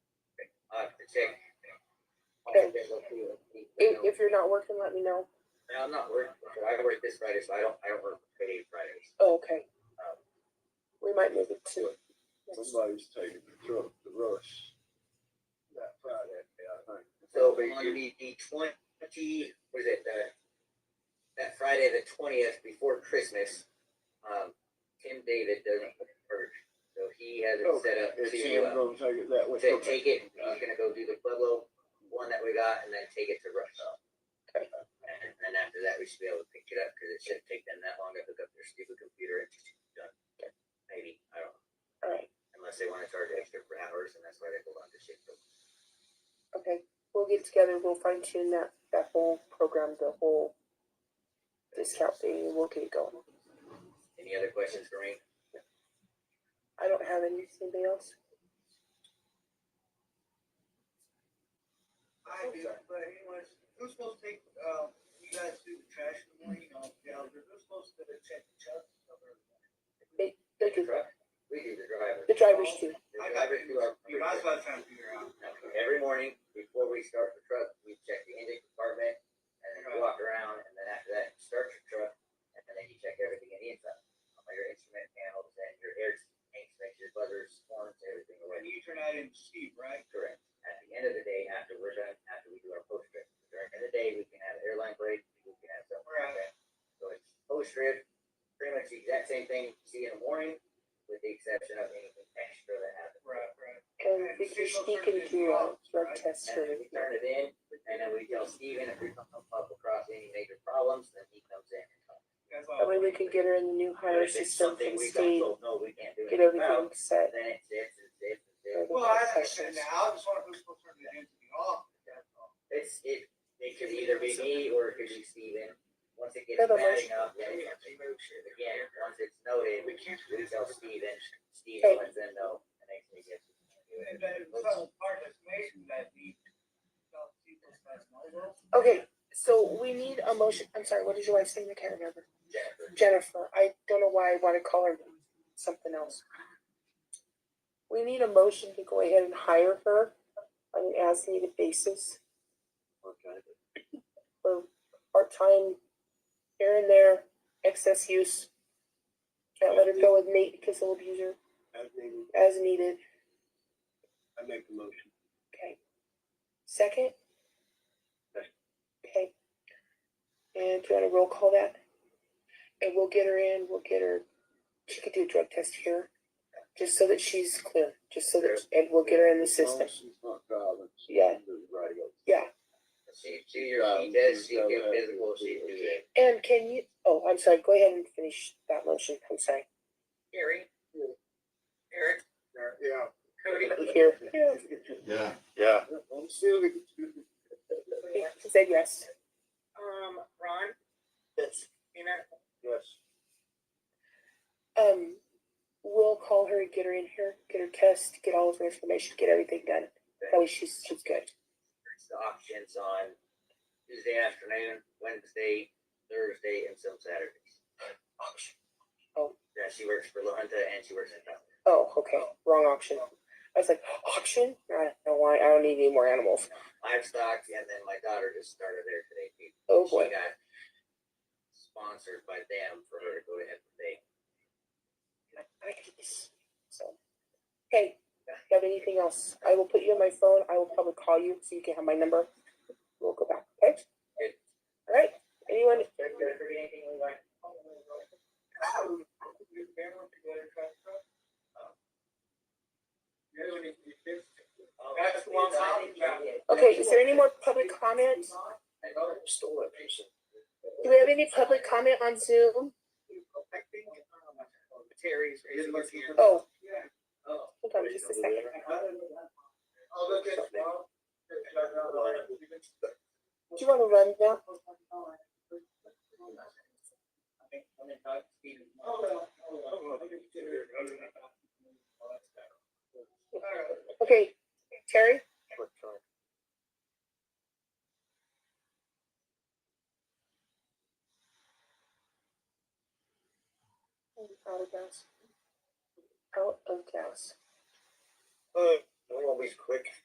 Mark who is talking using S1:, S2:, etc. S1: check. I think they go through it.
S2: If, if you're not working, let me know.
S1: No, I'm not working, so I work this Friday, so I don't, I don't work Friday, Fridays.
S2: Oh, okay. We might move it to.
S3: Somebody's taking the truck to Rush that Friday, I think.
S1: So on the, the twenty, what is it, uh, that Friday, the twentieth, before Christmas, um, Tim David doesn't purge, so he has
S3: Oh,
S1: it set up to,
S3: If
S1: uh,
S3: Sam's gonna take it that way.
S1: to take it, he's gonna go do the Pueblo one that we got and then take it to Rush.
S2: Okay.
S1: And then after that, we should be able to pick it up, cause it shouldn't take them that long to hook up their stupid computer and just done. Maybe, I don't know.
S2: All right.
S1: unless they wanna charge extra for hours, and that's why they hold on to shit. But
S2: Okay. We'll get together. We'll fine tune that that whole program, the whole discount thing, and we'll get it going.
S1: Any other questions, Kareem?
S2: I don't have any. Anybody else?
S4: I do, but anyways, who's supposed to take, um, you guys do the trash in the morning, you know, yeah, but who's supposed to check the chucks? of everybody?
S2: They do.
S1: We do the driver.
S2: The drivers do.
S1: The
S4: I got
S1: driver
S4: it,
S1: do our-
S4: dude, I was about trying to figure out.
S1: Every morning, before we start the truck, we check the engine compartment, and then we walk around, and then after that, start your truck, and then you check everything in the inside. All your instrument panels and your air tanks, make your buzzers, horns, everything
S4: When
S1: away.
S4: you turn that in Steve, right?
S1: Correct. At the end of the day, after we're done, after we do our post trip, during the day, we can have airline break, we can have something like that. So it's post trip, pretty much the exact same thing you see in the morning, with the exception of anything extra that happens.
S4: Right, right.
S2: And Vicky, she can do a drug test for
S1: And then we
S2: everything.
S1: turn it in, and then we tell Steven if we come up across any major problems, then he comes in. and helps.
S4: That's
S2: That
S4: all.
S2: way we can get her in the new hire
S1: If it's
S2: system
S1: something
S2: from
S1: we
S2: state,
S1: don't know, we can't do
S2: get
S1: anything
S2: everything
S1: about,
S2: set.
S1: then it's this, it's this, it's this.
S4: Well, I understand now, I just wonder who's supposed to turn it in to the office, that's all.
S1: It's, it, it could either be me or it could be Steven. Once it gets
S2: They're the
S1: bad
S2: most-
S1: enough, then it comes again, once it's noted, we
S4: can't
S1: tell Steven, Steven lets them know. and they can get-
S4: And then some part that's amazing that the, uh, people's that's my world.
S2: Okay, so we need a motion. I'm sorry, what is your wife's name? I can't remember.
S1: Jennifer,
S2: Jennifer. I don't know why I want to call her something else. We need a motion to go ahead and hire her on an as needed basis for part time, here and there, excess use. Can't let her go with Nate because he'll abuse her
S3: I think-
S2: as needed.
S3: I make the motion.
S2: Okay. Second? Okay. And do you wanna roll call that? And we'll get her in, we'll get her, she could do a drug test here, just so that she's clear, just so that, and we'll get her in the system.
S3: Thompson's not driving, so
S2: Yeah.
S3: the radio.
S2: Yeah,
S1: she, she, she does, she can physical, she do it.
S2: and can you, oh, I'm sorry, go ahead and finish that motion, I'm sorry.
S1: Gary? Eric?
S3: Yeah.
S1: Cody?
S2: Here,
S5: Yeah.
S3: Yeah. I'm still.
S2: she said yes.
S6: Um, Ron,
S3: Yes.
S6: Tina,
S3: Yes.
S2: Um, we'll call her, get her in here, get her test, get all of her information, get everything done. That way she's, she's good.
S1: The options on Tuesday afternoon, Wednesday, Thursday, and some Saturdays.
S2: Oh.
S1: Yeah, she works for La Junta and she works in town.
S2: Oh, okay. Wrong auction. I was like, auction? I don't know why. I don't need any more animals.
S1: livestock, and then my daughter just started there today. too.
S2: Oh boy.
S1: She got sponsored by them for her to go to head today.
S2: So, hey, if you have anything else? I will put you on my phone. I will probably call you so you can have my number. We'll go back. Okay.
S1: Good.
S2: All right. Anyone?
S1: Did I forget anything, Levi?
S4: Your family, you got a trash truck? Uh,
S1: Oh,
S4: That's the one
S1: I think you
S4: I'm-
S1: did.
S2: Okay. Is there any more public comment?
S1: I know you stole it, Jason.
S2: Do we have any public comment on Zoom?
S4: I think, um, Terry's raising his hand.
S2: Oh,
S4: Yeah.
S1: Oh.
S2: hold on just a second.
S4: I'll look at it tomorrow. uh,
S2: Do you want to run now?
S1: I think I'm gonna talk to Steven.
S4: Oh,
S1: tomorrow.
S4: well, oh, well, I think Terry- Alright.
S2: Okay. Terry? Out of gas. Out of gas.
S1: I'm always quick.